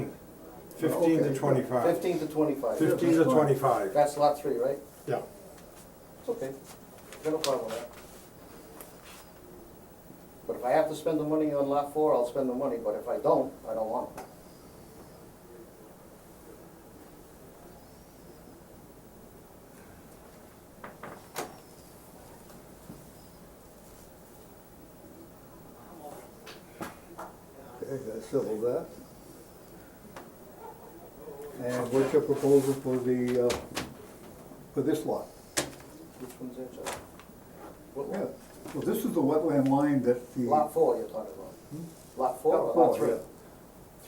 Oh, Fifteen to Okay. twenty-five. Fifteen to twenty-five. Fifteen to twenty-five, That's lot three, right? yeah. It's okay, I got no problem with that. But if I have to spend the money on lot four, I'll spend the money, but if I don't, I don't want it. Okay, that's civil that. And what's your proposal for the, uh, for this lot? Which one's that, John? What Yeah, lot? well, this is the wetland line that the. Lot four you're talking about? Lot four Hmm? Lot or lot four, three? yeah.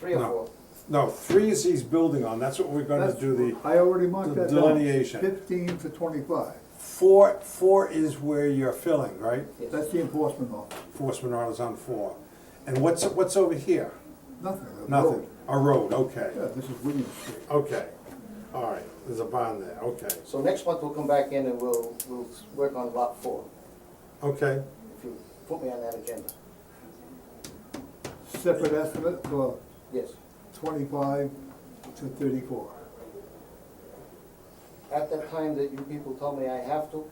Three or No. four? No, three is he's building on, that's what we're gonna That's- do, the, I already marked the that down. delineation. Fifteen to twenty-five, four, four is where you're filling, right? Yes. that's the enforcement office, Enforcement orders on four. And what's, what's over here? nothing. a Nothing, road. a road, okay, Yeah, this is William Street. okay, all right, there's a bond there, okay, So next month we'll come back in and we'll, we'll work on lot four, okay. if you put me on that agenda. Separate estimate for Yes, twenty-five to thirty-four. at that time that you people tell me I have to,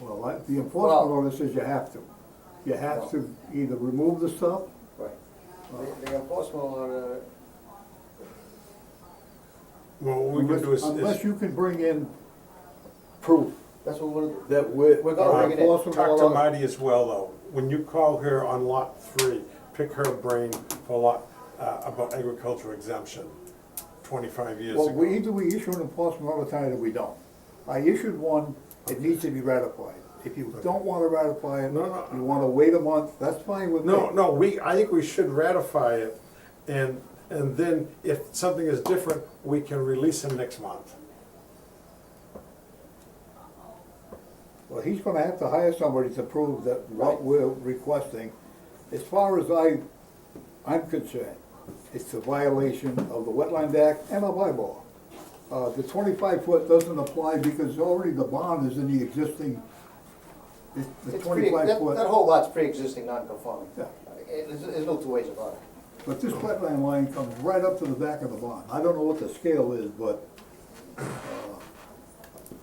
Well, I- the Well- enforcement order says you have to. You have to either remove the stuff Right. The- The enforcement order, Well, what we can do Unless is, unless is you can bring in proof that's what we're, that we're. We're gonna bring it in. Enforcement talk to order- Marty as well, though. When you call her on lot three, pick her brain for lot, uh, about agricultural exemption, twenty-five years Well, we, ago. either we issue an enforcement order tonight or we don't. I issued one, it needs to be ratified. If you don't wanna ratify it, No, no. you wanna wait a month, that's fine with me. No, no, we, I think we should ratify it, and, and then if something is different, we can release him next month. Well, he's gonna have to hire somebody to prove that what we're requesting, as far as I, I'm concerned, it's a violation of the Wetland Act and of bylaw. Uh, the twenty-five foot doesn't apply because already the bond is in the existing, it's the it's pre, twenty-five that, foot. that whole lot's pre-existing non-conforming. Yeah. It- There's, there's no two ways about it. But this wetland line comes right up to the back of the barn. I don't know what the scale is, but uh,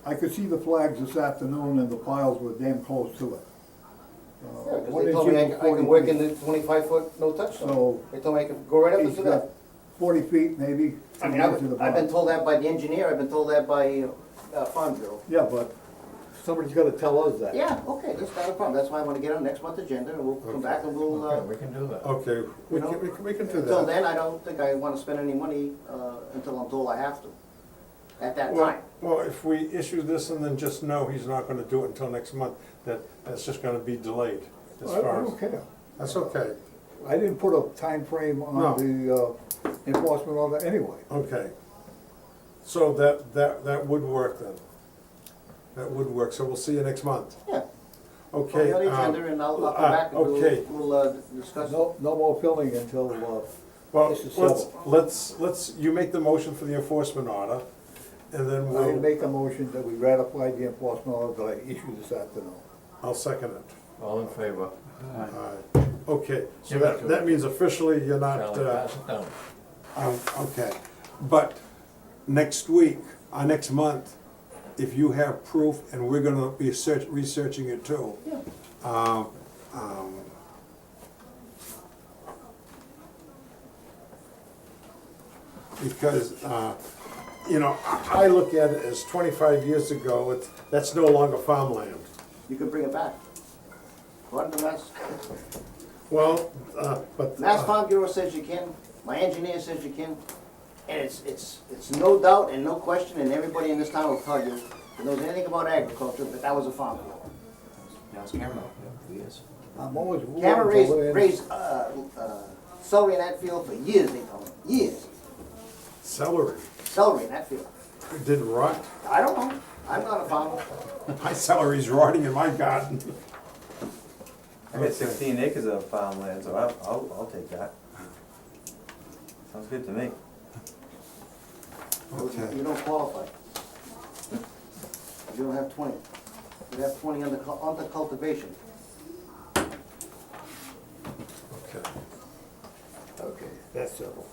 I could see the flags this afternoon and the piles were damn close to it. Uh, Because one they told me I inch can, and I can work in 40 the twenty-five foot no touch zone. So- They told me I could go right up feet. He's into that. got Forty feet maybe. I mean, to the edge of I've, the I've barn. been told that by the engineer, I've been told that by, uh, Farm Bureau. Yeah, but somebody's gotta tell us that. Yeah, okay, that's not a problem, that's why I wanna get on next month's agenda, and we'll come back and we'll, uh, we can do that. Okay, we You know, can, we can, we can do that. until then, I don't think I wanna spend any money, uh, until I'm told I have to, at that Well, time. well, if we issue this and then just know he's not gonna do it until next month, that, that's just gonna be delayed as I I far as. don't care. That's okay, I didn't put a time frame No. on the uh, enforcement order anyway. okay. So that, that, that would work then. That would work, so we'll see you next month, Yeah. Put okay? me on the um, agenda and I'll, I'll uh, come back and Okay, we'll, we'll, uh, discuss. No, no more filling until, uh, well, this is let's, settled. let's, let's, you make the motion for the enforcement order, and then I would we'll, make a motion that we ratify the enforcement order that I issued this afternoon. I'll second it. All in favor? Alright, Okay, so Give it that, to that him. means officially you're not, Charlie, uh, pass it down. Um, Okay, but next week, or next month, if you have proof, and we're gonna be search, researching it too. Yeah. um, um, Because, uh, you know, I I look at it as twenty-five years ago, it's, that's no longer farmland. You can bring it back. Run the Mass, Well, uh, but. Mass Farm Bureau says you can, my engineer says you can, and it's, it's, it's no doubt and no question, and everybody in this town will tell you, who knows anything about agriculture, that that was a farm bureau. Now it's camera, yeah, it is. I'm always willing to Cameron raised, learn. raised, uh, uh, celery in that field for years, they told me, years, Celery celery in that field. didn't rot. I don't know, I'm not a farmer. My celery's rotting in my garden. I got sixteen acres of farmland, so I'll, I'll, I'll take that. Sounds good to me. Okay. You don't qualify. You don't have twenty. You have twenty under, cul- under cultivation. Okay. Okay, that's settled.